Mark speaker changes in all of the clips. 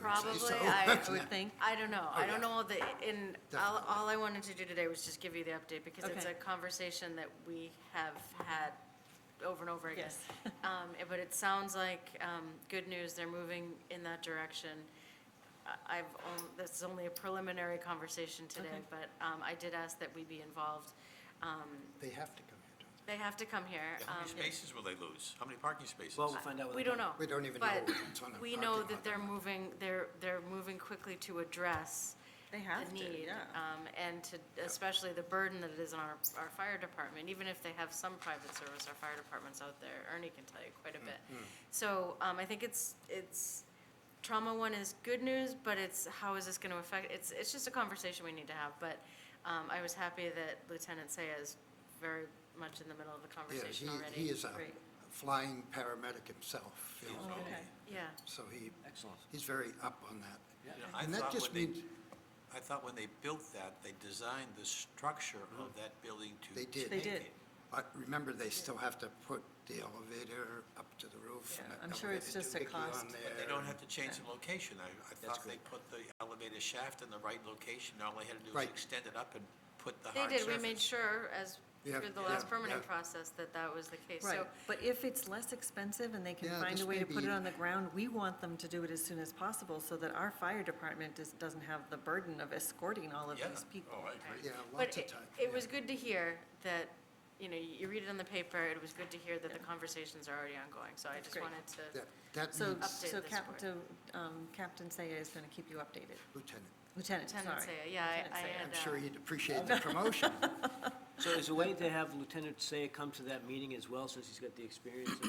Speaker 1: Probably,
Speaker 2: so.
Speaker 1: I,
Speaker 3: I would think.
Speaker 1: I don't know. I
Speaker 2: Oh,
Speaker 1: don't
Speaker 2: yeah.
Speaker 1: know all the, and all, all I wanted to do today was just give you the update because it's
Speaker 3: Okay.
Speaker 1: a conversation that we have had over and over again.
Speaker 3: Yes.
Speaker 1: Um, eh, but it sounds like, um, good news, they're moving in that direction. I- I've, on- this is only a preliminary conversation today,
Speaker 3: Okay.
Speaker 1: but, um, I did ask that we be involved. Um,
Speaker 2: They have to come here, don't
Speaker 1: they have to come here.
Speaker 4: How many
Speaker 1: um,
Speaker 4: spaces will they lose? How many parking spaces?
Speaker 5: Well, we'll find out. with
Speaker 1: We
Speaker 5: the
Speaker 1: don't know.
Speaker 5: public.
Speaker 2: We don't even know
Speaker 1: But
Speaker 2: what's on the
Speaker 1: we
Speaker 2: parking
Speaker 1: know
Speaker 2: lot
Speaker 1: that they're moving, they're, they're moving quickly to address
Speaker 3: They
Speaker 1: the need. um, And to, especially the burden that it is on our, our fire department, even if they have some private service, our fire department's out there, Ernie can tell you quite a bit.
Speaker 2: Mm-hmm.
Speaker 1: So um, I think it's, it's, trauma one is good news, but it's, how is this going to affect, it's, it's just a conversation we need to have. But um, I was happy that Lieutenant Saya is very much in the middle of the
Speaker 2: they? Yeah,
Speaker 1: conversation already.
Speaker 2: he, he is a
Speaker 3: Great.
Speaker 2: flying paramedic himself, you
Speaker 1: um,
Speaker 2: know,
Speaker 3: Okay.
Speaker 1: Yeah,
Speaker 2: so he,
Speaker 5: Excellent.
Speaker 2: he's very up on that.
Speaker 4: You know, I
Speaker 2: And that
Speaker 4: thought
Speaker 2: just
Speaker 4: when they-
Speaker 2: means,
Speaker 4: I thought when they built that, they designed the structure of that building to.
Speaker 2: Mm-hmm. They did.
Speaker 3: They did.
Speaker 4: take it.
Speaker 2: but remember, they still have to put the elevator up to the roof. and
Speaker 3: Yeah,
Speaker 2: that
Speaker 3: I'm sure it's
Speaker 2: elevator
Speaker 3: just a
Speaker 2: doohickey on
Speaker 3: cost.
Speaker 4: But they
Speaker 2: there.
Speaker 4: don't have to change the location. I, I thought they
Speaker 2: great.
Speaker 4: put the elevator shaft in the right location. All they had to do
Speaker 2: Right.
Speaker 4: was extend it up and put the
Speaker 1: They
Speaker 4: hard surface.
Speaker 1: did, we made sure as,
Speaker 2: Yeah,
Speaker 1: through the
Speaker 2: yeah,
Speaker 1: last permitting
Speaker 2: yeah.
Speaker 1: process, that that was the case. So
Speaker 3: Right, but if it's less expensive and they can
Speaker 2: Yeah,
Speaker 3: find
Speaker 2: this
Speaker 3: a way
Speaker 2: may
Speaker 3: to put
Speaker 2: be-
Speaker 3: it on the ground, we want them to do it as soon as possible so that our fire department is, doesn't have the burden of escorting all of
Speaker 4: Yeah.
Speaker 3: these people.
Speaker 4: Oh, I agree.
Speaker 2: Yeah,
Speaker 1: But
Speaker 2: lots of
Speaker 1: it,
Speaker 2: time.
Speaker 1: it was good to hear that, you know, you read it in the paper, it was good to hear that the conversations are already ongoing. So I
Speaker 3: That's
Speaker 1: just
Speaker 3: great.
Speaker 1: wanted to,
Speaker 2: That, that
Speaker 3: So,
Speaker 2: means
Speaker 1: Update
Speaker 3: so
Speaker 1: this board.
Speaker 3: Captain, um, Captain Saya is gonna keep you updated.
Speaker 2: lieutenant.
Speaker 3: Lieutenant, sorry.
Speaker 1: Lieutenant Saya, yeah, I-
Speaker 3: Lieutenant
Speaker 1: I
Speaker 3: Saya.
Speaker 1: had,
Speaker 2: I'm
Speaker 1: uh,
Speaker 2: sure he'd appreciate the promotion.
Speaker 5: So is there a way to have Lieutenant Say come to that meeting as well, since he's got the experience of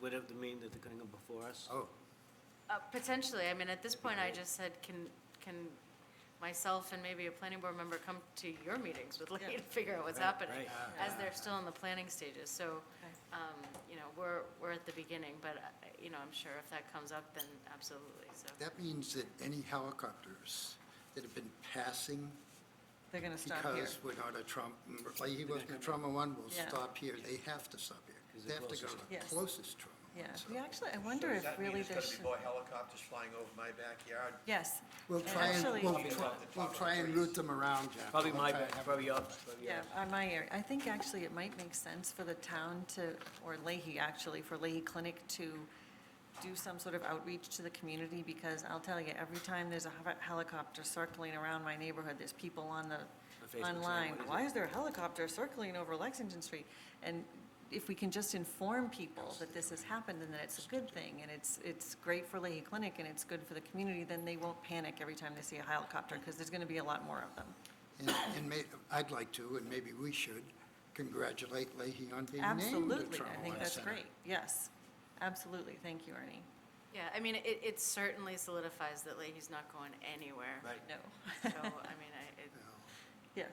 Speaker 5: whatever the meeting that they're going to go before us?
Speaker 2: Oh,
Speaker 1: uh, potentially, I mean, at this point, I just said, can, can myself and maybe a planning board member come to your meetings with Lee
Speaker 3: Yeah.
Speaker 1: and figure out what's
Speaker 5: Right,
Speaker 1: happening?
Speaker 5: right.
Speaker 1: As they're still in the planning stages, so, um, you know, we're, we're at the beginning, but, uh, you know, I'm sure if that comes up, then absolutely, so.
Speaker 2: that means that any helicopters that have been passing
Speaker 3: They're gonna stop here.
Speaker 2: because we're not a Trump, like he wasn't a Trump one, we'll
Speaker 3: Yeah.
Speaker 2: stop here. They have to stop here.
Speaker 5: Is it
Speaker 2: They have to go
Speaker 5: closest?
Speaker 2: to the
Speaker 3: Yes.
Speaker 2: closest Trump.
Speaker 3: Yeah, we actually, I wonder
Speaker 4: So
Speaker 3: if
Speaker 4: does that mean
Speaker 3: really
Speaker 4: there's
Speaker 3: there
Speaker 4: gonna
Speaker 3: should.
Speaker 4: be more helicopters flying over my backyard?
Speaker 3: Yes,
Speaker 2: We'll
Speaker 3: And
Speaker 2: try and,
Speaker 3: actually-
Speaker 2: we'll,
Speaker 4: Probably
Speaker 2: try-
Speaker 4: not the top
Speaker 2: we'll
Speaker 4: of the
Speaker 2: try and
Speaker 4: trees.
Speaker 2: route them around, Jeff.
Speaker 5: Probably
Speaker 2: We'll
Speaker 5: my,
Speaker 2: try and have
Speaker 5: probably yours, probably
Speaker 3: yeah,
Speaker 5: yours.
Speaker 3: on my area. I think actually it might make sense for the town to, or Leahy actually, for Leahy Clinic to do some sort of outreach to the community, because I'll tell you, every time there's a hel- helicopter circling around my neighborhood, there's people on
Speaker 5: On Facebook
Speaker 3: the,
Speaker 5: saying,
Speaker 3: online,
Speaker 5: "What is it?"
Speaker 3: why is there a helicopter circling over Lexington Street? And if we can just inform people that this has happened and that it's a good thing, and it's, it's great for Leahy Clinic and it's good for the community, then they won't panic every time they see a helicopter, because there's gonna be a lot more of them.
Speaker 2: And, and may, I'd like to, and maybe we should, congratulate Leahy on being named the
Speaker 3: Absolutely,
Speaker 2: Trump
Speaker 3: I think
Speaker 2: One
Speaker 3: that's
Speaker 2: Center.
Speaker 3: great, yes, absolutely, thank you, Ernie.
Speaker 1: Yeah, I mean, it, it certainly solidifies that Leahy's not going anywhere.
Speaker 4: Right.
Speaker 3: No,
Speaker 1: So, I mean, I, it,
Speaker 3: yes.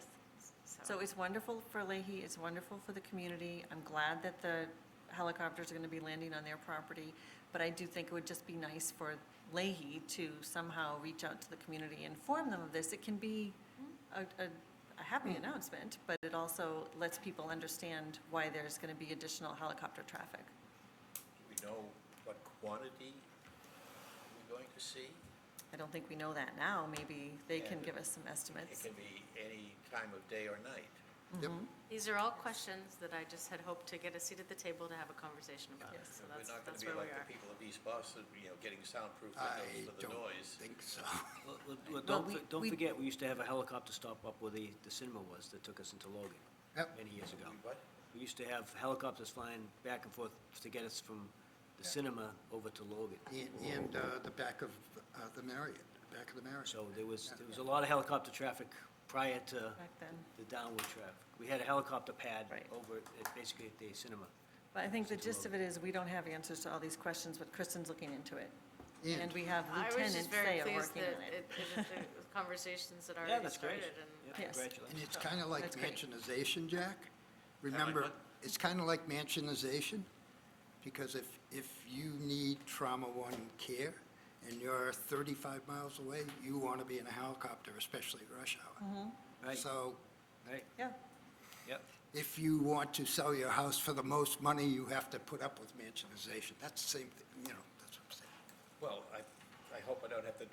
Speaker 3: So
Speaker 1: so,
Speaker 3: it's wonderful for Leahy, it's wonderful for the community, I'm glad that the helicopters are gonna be landing on their property, but I do think it would just be nice for Leahy to somehow reach out to the community, inform them of this, it can be a, a, a happy announcement, but it also lets people understand why there's gonna be additional helicopter traffic.
Speaker 4: Do we know what quantity we're going to see?
Speaker 3: I don't think we know that now, maybe they can
Speaker 4: Yeah.
Speaker 3: give us some
Speaker 4: It
Speaker 3: estimates.
Speaker 4: can be any time of day or night.
Speaker 2: Yep,
Speaker 3: Mm-hmm.
Speaker 1: these are all questions that I just had hoped to get a seat at the table to have a conversation about,
Speaker 3: Yes.
Speaker 1: so
Speaker 4: We're
Speaker 1: that's,
Speaker 4: not gonna
Speaker 1: that's
Speaker 4: be
Speaker 1: where we
Speaker 4: like the
Speaker 1: are.
Speaker 4: people of East Boston, you know, getting soundproof
Speaker 2: I
Speaker 4: windows for the
Speaker 2: don't
Speaker 4: noise.
Speaker 2: think so.
Speaker 5: Well, well, well, Don't,
Speaker 3: we-
Speaker 5: for- don't
Speaker 3: we-
Speaker 5: forget, we used to have a helicopter stop up where the, the cinema was that took us into Logan
Speaker 2: Yep.
Speaker 5: many years ago.
Speaker 4: We what?
Speaker 5: We used to have helicopters flying back and forth to get us from the cinema over to Logan.
Speaker 2: And, and, uh, the back of, uh, the Marriott, back of the Marriott.
Speaker 5: So there was, there was a lot of helicopter traffic prior to
Speaker 3: Back then.
Speaker 5: the downward traffic. We had a helicopter pad
Speaker 3: Right.
Speaker 5: over, at- basically at the cinema.
Speaker 3: But I think the gist of it is, we don't have answers to all these questions, but Kristen's looking into it. And we have
Speaker 1: I was
Speaker 3: Lieutenant
Speaker 1: just very
Speaker 3: Saya
Speaker 1: pleased
Speaker 3: working
Speaker 1: that
Speaker 3: on
Speaker 1: it,
Speaker 3: it.
Speaker 1: it, it- the conversations that
Speaker 5: Yeah,
Speaker 1: already
Speaker 5: that's great.
Speaker 1: started
Speaker 5: Yep,
Speaker 1: and,
Speaker 3: Yes.
Speaker 5: Congratulations.
Speaker 2: And it's kinda like
Speaker 3: That's great.
Speaker 2: mansionization, Jack. Remember,
Speaker 4: what?
Speaker 2: it's kinda like mansionization, because if, if you need trauma one care and you're thirty-five miles away, you wanna be in a helicopter, especially rush hour.
Speaker 3: Mm-hmm.
Speaker 5: Right,
Speaker 2: So
Speaker 5: right,
Speaker 3: Yeah,
Speaker 5: yep.
Speaker 2: if you want to sell your house for the most money, you have to put up with mansionization. That's the same, thing, you know, that's what I'm saying.
Speaker 4: Well, I, I hope I don't have to